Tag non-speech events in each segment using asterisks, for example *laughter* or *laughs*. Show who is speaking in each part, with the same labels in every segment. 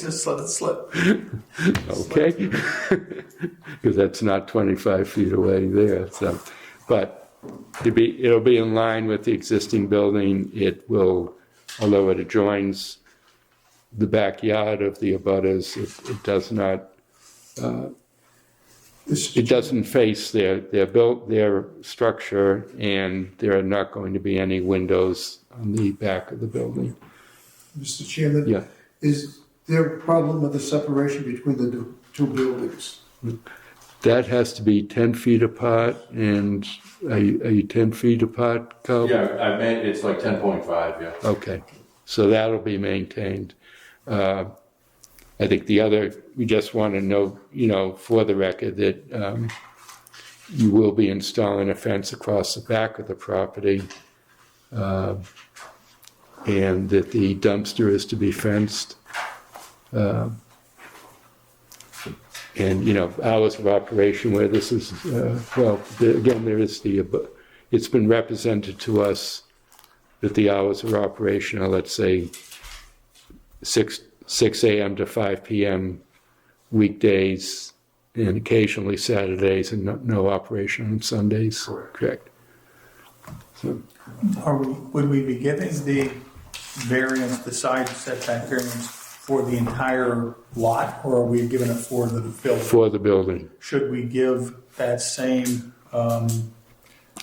Speaker 1: Just let it slip.
Speaker 2: okay? *laughs* Because that's not 25 feet away there, so, but it'll be, it'll be in line with the existing building. It will, although it adjoins the backyard of the abutters, it, it does not,
Speaker 1: This-
Speaker 2: it doesn't face their, their built, their structure, and there are not going to be any windows on the back of the building.
Speaker 3: Mr. Chairman?
Speaker 2: Yeah.
Speaker 3: Is there a problem with the separation between the two- two buildings?
Speaker 2: That has to be 10 feet apart, and are you, are you 10 feet apart, Carl?
Speaker 4: Yeah, I meant, it's like ten point five, yeah.
Speaker 2: Okay, so that'll be maintained. Uh, I think the other, we just want to know, you know, for the record, that um, you will be installing a fence across the back of the property, uh, and that the dumpster is to be fenced. Uh, And, you know, hours of operation where this is, uh, well, the- again, there is the, abo- it's been represented to us that the hours of operation are, let's say, six, six AM to five PM weekdays and occasionally Saturdays and no, no operation on Sundays. Correct.
Speaker 1: Are we, would we be giving the variance, the side setback variance for the entire lot, or are we giving it for the building?
Speaker 2: For the building.
Speaker 1: Should we give that same, um,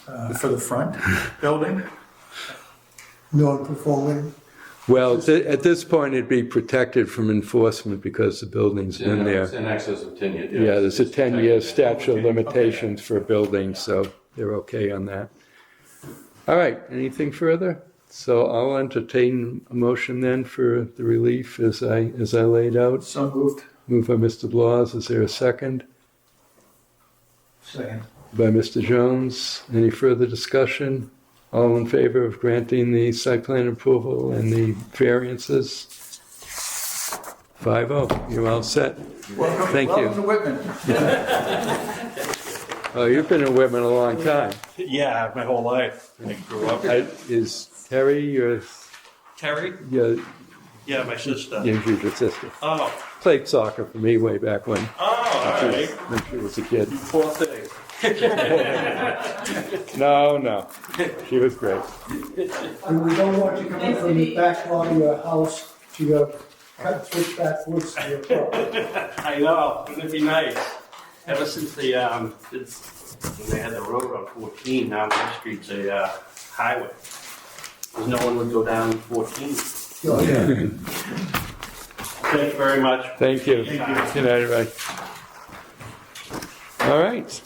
Speaker 1: uh, for the front building?
Speaker 3: Non-performing?
Speaker 2: Well, th- at this point, it'd be protected from enforcement because the building's been
Speaker 4: And It's
Speaker 2: there.
Speaker 4: in excess of ten years.
Speaker 2: Yeah, there's a
Speaker 4: It's protected.
Speaker 2: ten-year statute of limitations for a building, so they're okay on that. All right, anything further? So I'll entertain a motion then for the relief as I, as I laid out.
Speaker 1: So moved.
Speaker 2: Moved by Mr. Blas, is there a second?
Speaker 1: Second.
Speaker 2: By Mr. Jones, any further discussion? All in favor of granting the site plan approval and the variances? Five oh, you're all set.
Speaker 1: Welcome,
Speaker 2: Thank you.
Speaker 1: welcome to Whitman.
Speaker 2: Oh, you've been in Whitman a long time.
Speaker 5: Yeah, my whole life. I grew up.
Speaker 2: I- Is Terry your,
Speaker 5: Terry?
Speaker 2: your,
Speaker 5: Yeah, my sister.
Speaker 2: your your sister?
Speaker 5: Oh,
Speaker 2: Played soccer for me way back when,
Speaker 5: oh, all right.
Speaker 2: when she was a kid.
Speaker 5: Poor thing.
Speaker 2: No, no, she was great.
Speaker 3: And we don't want you coming from the back lot of your house to your, cut switch back woods to your property.
Speaker 5: I know. Wouldn't it be nice? Ever since the um, it's, when they had the road on 14, now my street's a uh, highway. 'Cause no one would go down 14.
Speaker 3: Yeah.
Speaker 5: Thank you very much.
Speaker 2: Thank you.
Speaker 5: Thank you.
Speaker 2: Good night, everybody. All right.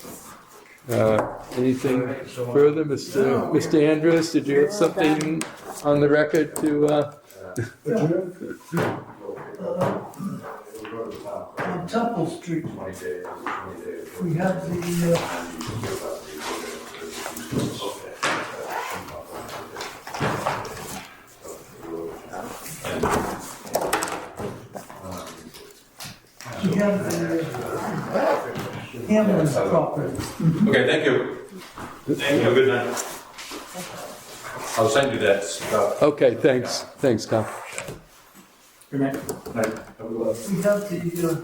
Speaker 2: Uh, Anything further, Mr. Mr. Andrews? Did you have something on the record to, uh,
Speaker 6: On Temple Street, we have the, uh, we have the uh, Hamlin's property.
Speaker 4: Okay, thank you. Thank you, good night. I'll send you that stuff.
Speaker 2: okay, thanks, thanks, Tom.
Speaker 1: Good night.
Speaker 6: We have the, uh,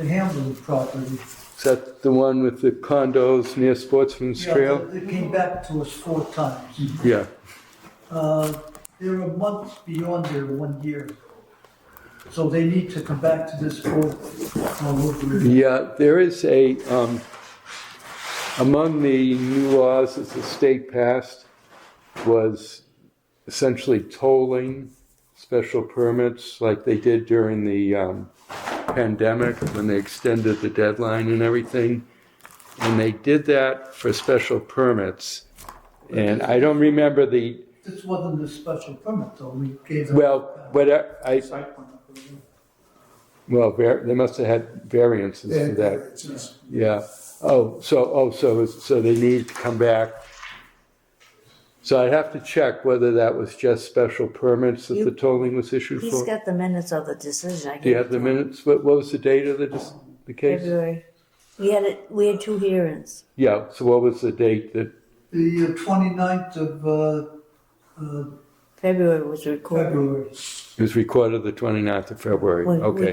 Speaker 6: the Hamlin's property.
Speaker 2: Is that the one with the condos near Sportsman's
Speaker 6: Yeah,
Speaker 2: Trail?
Speaker 6: They came back to us four times.
Speaker 2: Yeah,
Speaker 6: Uh, They're a month beyond their one year. So they need to come back to this board. all over again.
Speaker 2: yeah, there is a, um, among the new laws that the state passed was essentially tolling special permits like they did during the um, pandemic when they extended the deadline and everything. And they did that for special permits. And I don't remember the,
Speaker 6: This wasn't a special permit, though, we gave them.
Speaker 2: well, but I, I- well, var- they must have had variances to that. Yeah. Oh, so, oh, so, so they need to come back. So I'd have to check whether that was just special permits that the
Speaker 7: You-
Speaker 2: tolling was issued
Speaker 7: He's
Speaker 2: for.
Speaker 7: got the minutes of the decision. I
Speaker 2: Do you
Speaker 7: gave
Speaker 2: have
Speaker 7: it
Speaker 2: the
Speaker 7: to him.
Speaker 2: minutes? What, what was the date of the, dis- the case?
Speaker 7: February. We had it, we had two hearings.
Speaker 2: Yeah, so what was the date that,
Speaker 6: The uh, 29th of uh, uh,
Speaker 7: February was recorded.
Speaker 6: February.
Speaker 2: it was recorded the 29th of February?
Speaker 7: When we
Speaker 2: Okay.